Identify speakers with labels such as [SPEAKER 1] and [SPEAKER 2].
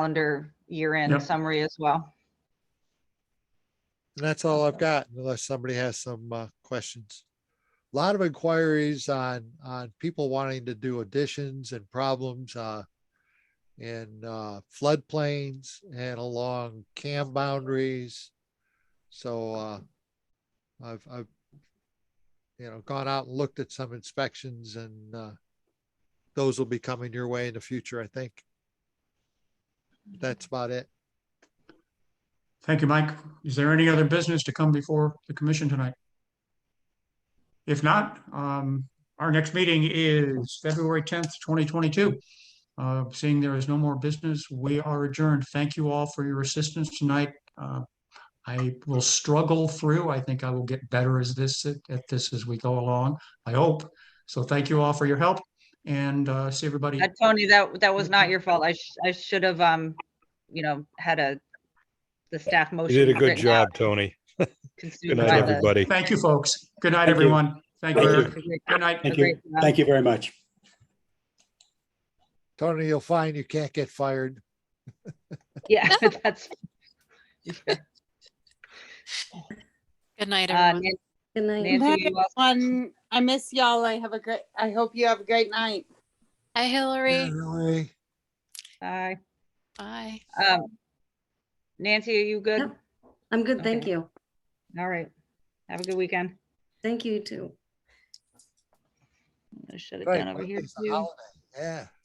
[SPEAKER 1] calendar year-end
[SPEAKER 2] Yep.
[SPEAKER 1] summary as well.
[SPEAKER 3] And that's all I've got unless somebody has some uh, questions. A Lot of inquiries on, on people wanting to do additions and problems uh, in uh, floodplains and along cam boundaries. So uh, I've, I've, you know, gone out and looked at some inspections and uh, those will be coming your way in the future, I think. That's about it.
[SPEAKER 2] Thank you, Mike. Is there any other business to come before the commission tonight? If not, um, our next meeting is February tenth, twenty twenty-two. Uh, seeing there is no more business, we are adjourned. Thank you all for your assistance tonight. Uh, I will struggle through. I think I will get better as this, at this as we go along, I hope. So thank you all for your help and, uh, see everybody.
[SPEAKER 1] Uh, Tony, that, that was not
[SPEAKER 4] Mm-hmm.
[SPEAKER 1] your fault. I, sh- I should have, um, you know, had a, the staff motion.
[SPEAKER 5] You did a good
[SPEAKER 1] written out,
[SPEAKER 5] job, Tony. Good
[SPEAKER 1] consumed
[SPEAKER 5] night,
[SPEAKER 1] by the-
[SPEAKER 5] everybody.
[SPEAKER 2] Thank you, folks. Good night,
[SPEAKER 4] Thank you.
[SPEAKER 2] everyone. Thank you.
[SPEAKER 5] Thank you.
[SPEAKER 2] Eric. Good night.
[SPEAKER 4] Thank
[SPEAKER 1] A
[SPEAKER 4] you.
[SPEAKER 1] great job.
[SPEAKER 4] Thank you very much.
[SPEAKER 3] Tony, you'll find you can't get fired.
[SPEAKER 1] Yeah, that's,
[SPEAKER 6] Good night,
[SPEAKER 1] uh,
[SPEAKER 6] everyone.
[SPEAKER 7] Good night.
[SPEAKER 1] Nancy, you also-
[SPEAKER 8] everyone. I miss y'all. I have a great, I hope you have a great night.
[SPEAKER 6] Hi, Hillary.
[SPEAKER 3] Really?
[SPEAKER 1] Hi.
[SPEAKER 6] Bye.
[SPEAKER 1] Um, Nancy, are you good?
[SPEAKER 7] Yep. I'm good, thank
[SPEAKER 1] Okay.
[SPEAKER 7] you.
[SPEAKER 1] All right. Have a good weekend.
[SPEAKER 7] Thank you too.
[SPEAKER 1] I Shut it
[SPEAKER 3] Right,
[SPEAKER 1] down over here
[SPEAKER 3] Monday's a
[SPEAKER 1] too.
[SPEAKER 3] holiday, Yeah.